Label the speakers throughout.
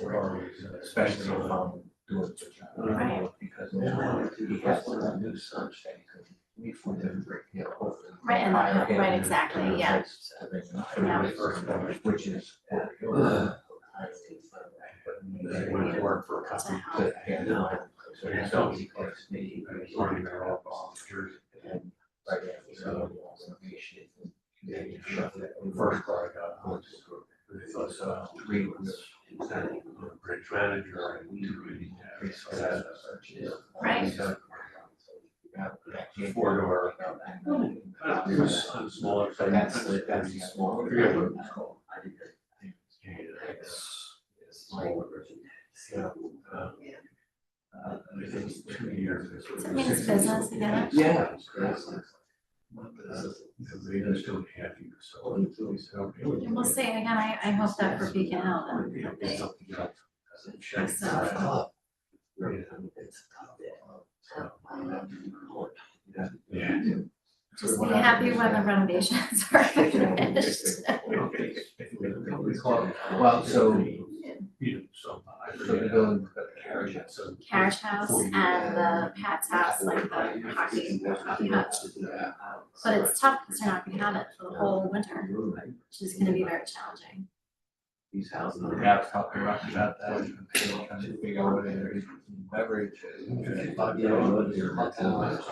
Speaker 1: or especially if I'm doing.
Speaker 2: Right.
Speaker 1: Because he has a new search that he could meet for them, you know, over.
Speaker 2: Right, and that- right, exactly, yeah.
Speaker 1: Which is. They went to work for a company that had no. So it's always he calls me. he's already got all the volunteers and, like, so, automation, and then you shut that First part, uh, which is- it was, uh, three was. exactly, a Bridge manager and we really had. so that's a search, you know.
Speaker 2: Right.
Speaker 1: So, Four door.
Speaker 3: Uh, it was on smaller.
Speaker 1: So that's, the- that's the small.
Speaker 3: Yeah.
Speaker 1: It's- it's small version. So, uh, uh, I think it's two years.
Speaker 2: Does it mean it's business together?
Speaker 1: Yeah. Because
Speaker 3: They just don't have you, so it's always helping.
Speaker 2: And we'll see, and again, I, I hope that for Beacon Hill, that
Speaker 3: Yeah, it's something else.
Speaker 1: it checks
Speaker 2: So- uh,
Speaker 1: that up.
Speaker 3: Yeah.
Speaker 1: It's up there. So, I'm not too important.
Speaker 3: Yeah.
Speaker 2: just be happy when the renovations are finished.
Speaker 1: Well, so-
Speaker 3: You know, so uh, I
Speaker 1: So the
Speaker 3: forget.
Speaker 1: building, the carriage,
Speaker 3: Yeah, so-
Speaker 2: Carriage House and the Pat's House, like the hockey, hockey hut. But it's tough because they're not gonna have it for the whole winter, which is gonna be very challenging.
Speaker 1: These houses. Yeah, I was talking about that, trying to figure out what their beverage is. You know, it's your motel.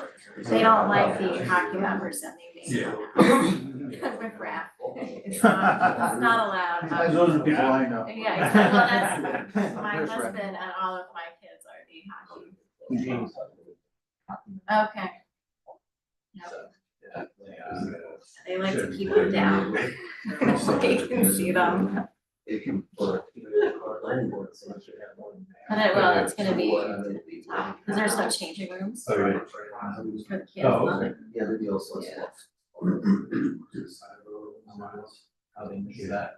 Speaker 2: They don't like the hockey members that they make.
Speaker 3: Yeah.
Speaker 2: Because we're crap. It's not, it's not allowed.
Speaker 4: Those are the people I know.
Speaker 2: Yeah, exactly. Well, that's- My husband and all of my kids are the hockey. Okay, they like to keep them down. They can see them.
Speaker 1: It can, but. But
Speaker 2: But it will, it's gonna be tough, because there's no changing rooms
Speaker 3: All right.
Speaker 2: for the kids.
Speaker 3: Oh, okay.
Speaker 1: Yeah, the deal is.
Speaker 2: Yeah.
Speaker 1: How they do that.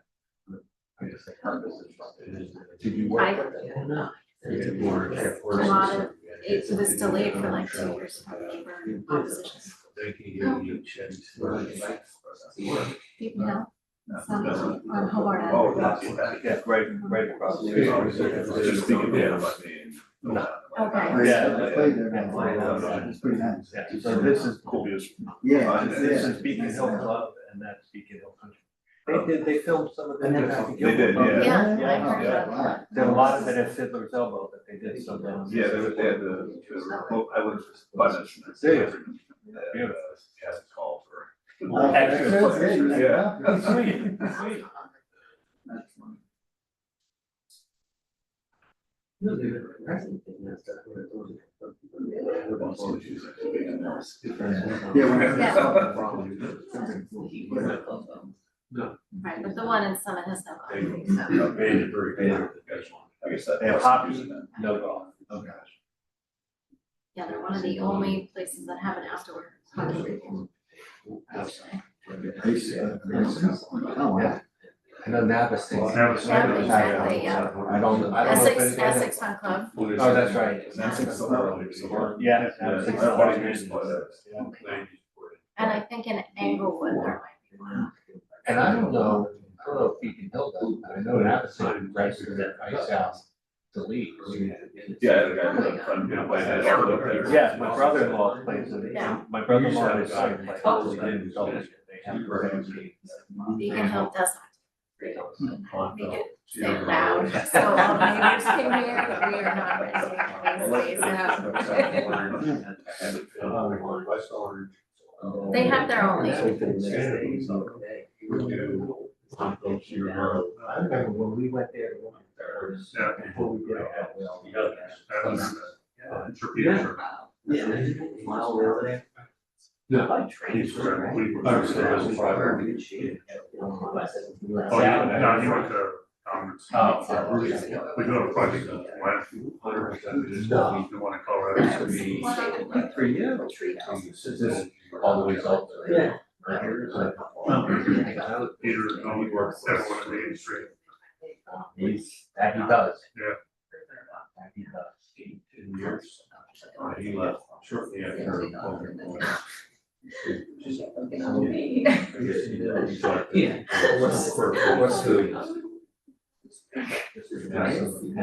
Speaker 1: I guess they have this instructor. Did you work?
Speaker 2: I-
Speaker 1: with them? No.
Speaker 3: It's more- it's
Speaker 2: A lot
Speaker 3: more-
Speaker 2: of, it was delayed for like two years from labor opposition.
Speaker 3: They can give you checks.
Speaker 2: People know, it's not cheap on
Speaker 4: Oh,
Speaker 2: Hobart Island.
Speaker 4: that's, yeah, right, right across. the street.
Speaker 3: Just thinking, yeah, about me.
Speaker 2: Okay,
Speaker 4: Yeah.
Speaker 5: I played there, man.
Speaker 4: Yeah.
Speaker 5: It's pretty nice.
Speaker 4: So this is cool.
Speaker 5: Yeah, it's-
Speaker 4: This
Speaker 5: yeah.
Speaker 4: is Beacon Hill Club and that's Beacon Hill Country.
Speaker 1: They did, they filmed some of
Speaker 5: I never
Speaker 1: that.
Speaker 5: had to
Speaker 4: They did,
Speaker 5: go.
Speaker 4: yeah.
Speaker 2: yeah, I
Speaker 5: Yeah.
Speaker 2: heard about that.
Speaker 4: There's a lot of it at Fiddler's Elbow that they did some. of those.
Speaker 6: Yeah, they were, they had the, the remote, I was, but it's.
Speaker 4: Serious?
Speaker 6: Yeah, has a call for.
Speaker 5: Uh,
Speaker 4: Extra
Speaker 5: that's it,
Speaker 4: players,
Speaker 5: yeah.
Speaker 4: Sweet, sweet.
Speaker 5: That's fun. Yeah, whenever
Speaker 2: Yeah.
Speaker 5: there's something wrong, something cool.
Speaker 2: Right, but the one in Summit has no.
Speaker 3: They-
Speaker 2: so.
Speaker 3: Yeah, very, very good.
Speaker 6: I guess that.
Speaker 4: They have hockey, no golf.
Speaker 6: Oh, gosh.
Speaker 2: Yeah, they're one of the only places that have an outdoor hockey rink, actually.
Speaker 5: I used to, uh, I used to- oh, wow.
Speaker 1: I know Napa State.
Speaker 3: Napa State.
Speaker 2: Yeah, exactly, yeah.
Speaker 1: I don't, I don't know if
Speaker 2: Essex,
Speaker 1: anything-
Speaker 2: Essex Fun Club,
Speaker 1: Oh, that's right.
Speaker 6: That's so early, so we're-
Speaker 4: Yeah.
Speaker 6: Yeah,
Speaker 4: six
Speaker 6: it's about
Speaker 4: dollars.
Speaker 6: twenty years ago, that's-
Speaker 4: Yeah.
Speaker 2: and I think in Englewood there might be one.
Speaker 1: And I don't know, I don't know if Beacon Hill does, but I know Napa State registered that ice house to leave.
Speaker 6: Yeah, the guy was from, you know, by that, all the way up there.
Speaker 4: Yeah, my brother-in-law plays
Speaker 2: Yeah.
Speaker 4: it, my brother-in-law and his son play.
Speaker 6: Oh.
Speaker 4: it. They have programs.
Speaker 2: Beacon Hill does not make it say loud, so all the neighbors can hear that we are not raising
Speaker 3: Oh,
Speaker 2: our voices, so.
Speaker 3: West Orange.
Speaker 2: They have their own, like,
Speaker 3: We do. Go to your road.
Speaker 1: I remember when we went there, we went there,
Speaker 3: Yeah.
Speaker 1: before we did all that well.
Speaker 3: You got that. Uh, it's your picture.
Speaker 5: Yeah. Mile over there.
Speaker 1: By
Speaker 3: It's where we were-
Speaker 1: Oh, so that's
Speaker 5: Very good shape.
Speaker 3: Oh, yeah, no, you went to conference.
Speaker 1: Oh, oh,
Speaker 3: We
Speaker 1: okay.
Speaker 3: go to project, why, hundred percent, we just,
Speaker 1: No.
Speaker 3: we want to Colorado.
Speaker 1: To be-
Speaker 2: Well,
Speaker 1: For you.
Speaker 3: This
Speaker 1: Is this all the way up? to-
Speaker 5: Yeah.
Speaker 1: Right here, it's like-
Speaker 3: Peter, only works, everyone in the industry.
Speaker 1: He's- That he does.
Speaker 3: Yeah.
Speaker 1: That he does.
Speaker 3: Eighteen years. Uh, he left shortly after. COVID.
Speaker 1: Yeah. What's, what's the? Nice.